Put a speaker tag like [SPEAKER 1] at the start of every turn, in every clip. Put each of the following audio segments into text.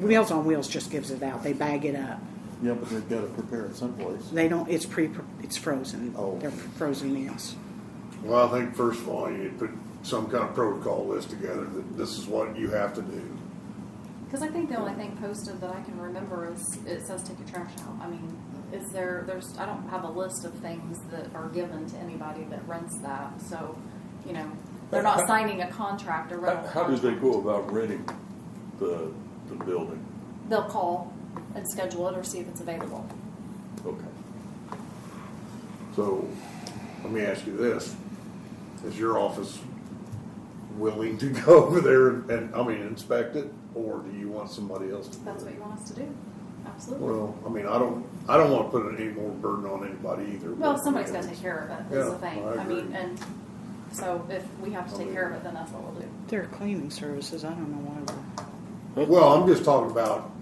[SPEAKER 1] Meals on Wheels just gives it out. They bag it up.
[SPEAKER 2] Yeah, but they've got to prepare it someplace.
[SPEAKER 1] They don't. It's pre. It's frozen.
[SPEAKER 2] Oh.
[SPEAKER 1] They're frozen meals.
[SPEAKER 3] Well, I think first of all, you need to put some kind of protocol list together that this is what you have to do.
[SPEAKER 4] Because I think the only thing posted that I can remember is it says take your trash out. I mean, is there, there's, I don't have a list of things that are given to anybody that rents that, so, you know, they're not signing a contract or
[SPEAKER 5] How,
[SPEAKER 4] rental.
[SPEAKER 5] how do they
[SPEAKER 4] contract.
[SPEAKER 5] go about renting the, the building?
[SPEAKER 4] They'll call and schedule it or see if it's available.
[SPEAKER 5] Okay.
[SPEAKER 3] So, let me ask you this. Is your office willing to go over there and, I mean, inspect it? Or do you want somebody else to? do
[SPEAKER 4] That's what
[SPEAKER 3] it?
[SPEAKER 4] you want us to do, absolutely.
[SPEAKER 3] Well, I mean, I don't, I don't want to put any more burden on anybody either.
[SPEAKER 4] Well,
[SPEAKER 3] but-
[SPEAKER 4] somebody's gotta take care of it, is the
[SPEAKER 3] Yeah,
[SPEAKER 4] thing.
[SPEAKER 3] I
[SPEAKER 4] I mean,
[SPEAKER 3] agree.
[SPEAKER 4] and so if we have to take care of it, then that's what we'll do.
[SPEAKER 1] They're cleaning services. I don't know why. we're-
[SPEAKER 3] Well, I'm just talking about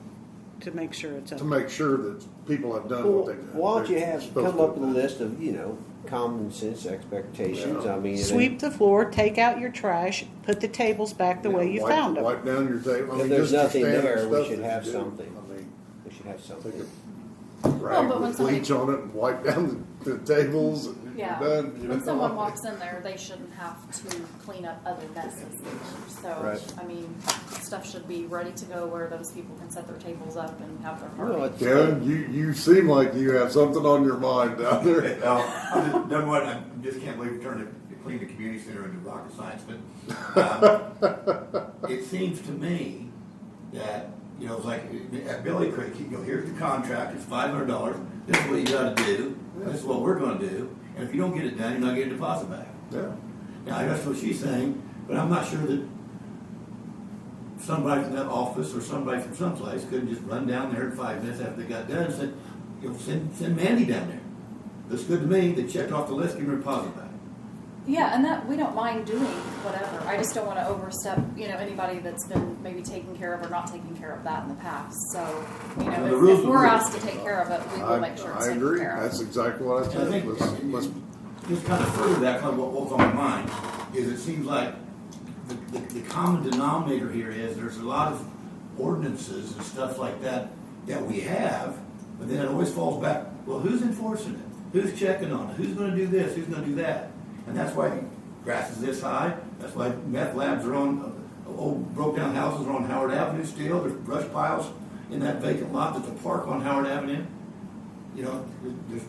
[SPEAKER 1] To make sure it's up.
[SPEAKER 3] to make sure that people have done
[SPEAKER 6] Well,
[SPEAKER 3] what they.
[SPEAKER 6] why don't you
[SPEAKER 3] they're
[SPEAKER 6] have,
[SPEAKER 3] supposed
[SPEAKER 6] come
[SPEAKER 3] to.
[SPEAKER 6] up with a list of, you know, common sense expectations, I mean. and-
[SPEAKER 1] Sweep the floor. Take out your trash. Put the tables back the way you
[SPEAKER 3] Wipe-
[SPEAKER 1] found them.
[SPEAKER 3] Wipe down your table. I
[SPEAKER 6] If
[SPEAKER 3] mean,
[SPEAKER 6] there's
[SPEAKER 3] just the
[SPEAKER 6] nothing
[SPEAKER 3] standard
[SPEAKER 6] there, we
[SPEAKER 3] stuff
[SPEAKER 6] should
[SPEAKER 3] that you
[SPEAKER 6] have
[SPEAKER 3] do.
[SPEAKER 6] something.
[SPEAKER 3] I mean,
[SPEAKER 6] We should have
[SPEAKER 3] Take
[SPEAKER 6] something.
[SPEAKER 3] a rag
[SPEAKER 4] but when
[SPEAKER 3] with
[SPEAKER 4] somebody-
[SPEAKER 3] bleach on it and wipe down the, the tables and you're
[SPEAKER 4] Yeah.
[SPEAKER 3] done. you
[SPEAKER 4] When
[SPEAKER 3] know?
[SPEAKER 4] someone walks in there, they shouldn't have to clean up other messes. So,
[SPEAKER 6] Right.
[SPEAKER 4] I mean, stuff should be ready to go where those people can set their tables up and have their
[SPEAKER 6] Well,
[SPEAKER 4] party.
[SPEAKER 6] it's-
[SPEAKER 3] Kevin, you, you seem like you have something on your mind down there.
[SPEAKER 7] Well, I'm just- uh, number one, I just can't believe we turned it, cleaned the community center into rocket science, but, um, it seems to me that, you know, it's like, at Billy Creek, you go, here's the contract, it's five hundred dollars, this is what you gotta do, this is what we're gonna do, and if you don't get it done, you're not getting a deposit back.
[SPEAKER 3] Yeah.
[SPEAKER 7] Now, that's what she's saying, but I'm not sure that somebody from that office or somebody from someplace couldn't just run down there in five minutes after they got done and said, you know, send, send Mandy down there. Looks good to me, they checked off the list, give her a deposit back.
[SPEAKER 4] Yeah, and that, we don't mind doing whatever. I just don't wanna overstep, you know, anybody that's been maybe taken care of or not taken care of that in the past. So, you
[SPEAKER 7] And
[SPEAKER 4] know,
[SPEAKER 7] the
[SPEAKER 4] if-
[SPEAKER 7] rules
[SPEAKER 4] if
[SPEAKER 7] are
[SPEAKER 4] we're
[SPEAKER 7] rules.
[SPEAKER 4] asked to take care of it, we
[SPEAKER 3] I-
[SPEAKER 4] will make sure it's
[SPEAKER 3] I
[SPEAKER 4] taken
[SPEAKER 3] agree.
[SPEAKER 4] care of.
[SPEAKER 3] That's exactly what I
[SPEAKER 7] And I
[SPEAKER 3] said.
[SPEAKER 7] think,
[SPEAKER 3] Let's,
[SPEAKER 7] and-
[SPEAKER 3] let's,
[SPEAKER 7] and just kind of further that, kind of what was on my mind, is it seems like the, the, the common denominator here is there's a lot of ordinances and stuff like that that we have, but then it always falls back, well, who's enforcing it? Who's checking on it? Who's gonna do this? Who's gonna do that? And that's why grass is this high, that's why meth labs are on, uh, old broke down houses are on Howard Avenue still, there's brush piles in that vacant lot that's a park on Howard Avenue. You know, there's,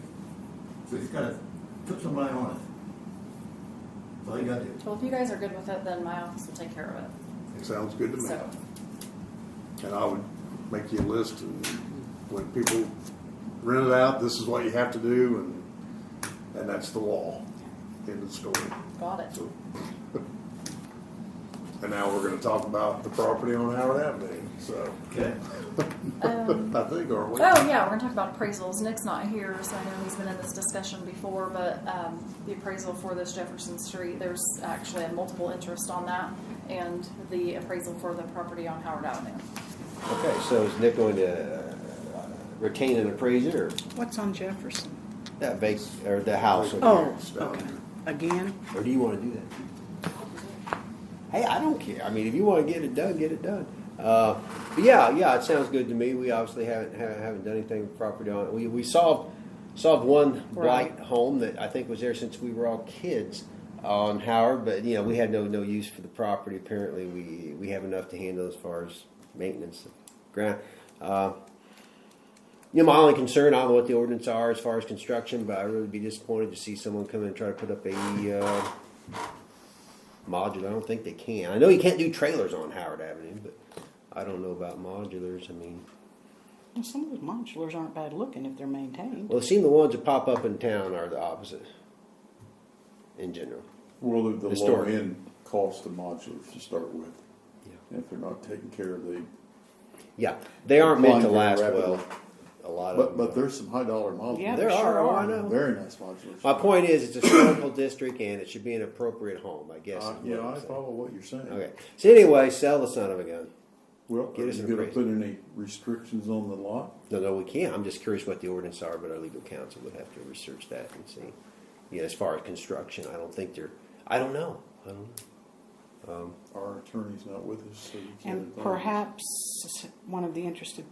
[SPEAKER 7] so he's gotta put somebody on it. That's all you gotta do.
[SPEAKER 4] Well, if you guys are good with it, then my office will take care of it,
[SPEAKER 3] it sounds good to me.
[SPEAKER 4] so.
[SPEAKER 3] And I would make you a list and when people rent it out, this is what you have to do and, and that's the law. End of story.
[SPEAKER 4] Got it.
[SPEAKER 3] So- And now we're gonna talk about the property on Howard Avenue, so,
[SPEAKER 7] Okay.
[SPEAKER 4] Um,
[SPEAKER 3] I think, aren't we?
[SPEAKER 4] Oh, yeah, we're gonna talk about appraisals. Nick's not here, so I know he's been in this discussion before, but, um, the appraisal for this Jefferson Street, there's actually a multiple interest on that, and the appraisal for the property on Howard Avenue.
[SPEAKER 6] Okay, so is Nick going to uh, retain an appraiser or
[SPEAKER 1] What's on Jefferson?
[SPEAKER 6] that vac, or the house? over
[SPEAKER 1] Oh,
[SPEAKER 3] It's down
[SPEAKER 1] okay.
[SPEAKER 3] here.
[SPEAKER 1] Again,
[SPEAKER 6] there? Or do you wanna do that? Hey, I don't care, I mean, if you wanna get it done, get it done. Uh, but yeah, yeah, it sounds good to me, we obviously haven't, ha- haven't done anything with property on, it. we, we solved, solved one
[SPEAKER 1] Right.
[SPEAKER 6] blight home that I think was there since we were all kids on Howard, but, you know, we had no, no use for the property, apparently, we, we have enough to handle as far as maintenance of ground. Uh, You know, my only concern, I don't know what the ordinance are as far as construction, but I really be disappointed to see someone come in and try to put up a uh, modular. I don't think they can. I know you can't do trailers on Howard Avenue, but I don't know about modulars. I mean,
[SPEAKER 1] well, some of those modulars aren't bad looking if they're maintained.
[SPEAKER 6] well, it seems the ones that pop up in town are the opposite in general.
[SPEAKER 2] Well, the, the low
[SPEAKER 6] Historic.
[SPEAKER 2] end cost of modulars to start with.
[SPEAKER 6] Yeah.
[SPEAKER 2] If they're not taken care of, they,
[SPEAKER 6] Yeah, they aren't meant to
[SPEAKER 2] Decline
[SPEAKER 6] last
[SPEAKER 2] rapidly.
[SPEAKER 6] well. A lot
[SPEAKER 2] but,
[SPEAKER 6] of
[SPEAKER 2] but
[SPEAKER 6] them.
[SPEAKER 2] there's some high dollar modulars.
[SPEAKER 1] Yeah,
[SPEAKER 6] there
[SPEAKER 1] they sure
[SPEAKER 6] are. oh,
[SPEAKER 1] are.
[SPEAKER 6] I know.
[SPEAKER 2] Very nice modulars.
[SPEAKER 6] My point is, it's a historical district, and it should be an appropriate home. I guess.
[SPEAKER 2] Uh,
[SPEAKER 6] is
[SPEAKER 2] yeah,
[SPEAKER 6] what I'm
[SPEAKER 2] I
[SPEAKER 6] saying.
[SPEAKER 2] follow what you're saying.
[SPEAKER 6] Okay. So anyway, sell the son of a gun.
[SPEAKER 2] Well, are
[SPEAKER 6] Get us
[SPEAKER 2] you
[SPEAKER 6] an
[SPEAKER 2] gonna
[SPEAKER 6] appraisal.
[SPEAKER 2] put any restrictions on the lot?
[SPEAKER 6] No, no, we can't. I'm just curious what the ordinance are, but our legal counsel would have to research that and see. Yeah, as far as construction, I don't think they're, I don't know. I don't know. Um,
[SPEAKER 2] Our attorney's not with us, so we can't.
[SPEAKER 1] And
[SPEAKER 2] advise.
[SPEAKER 1] perhaps one of the interested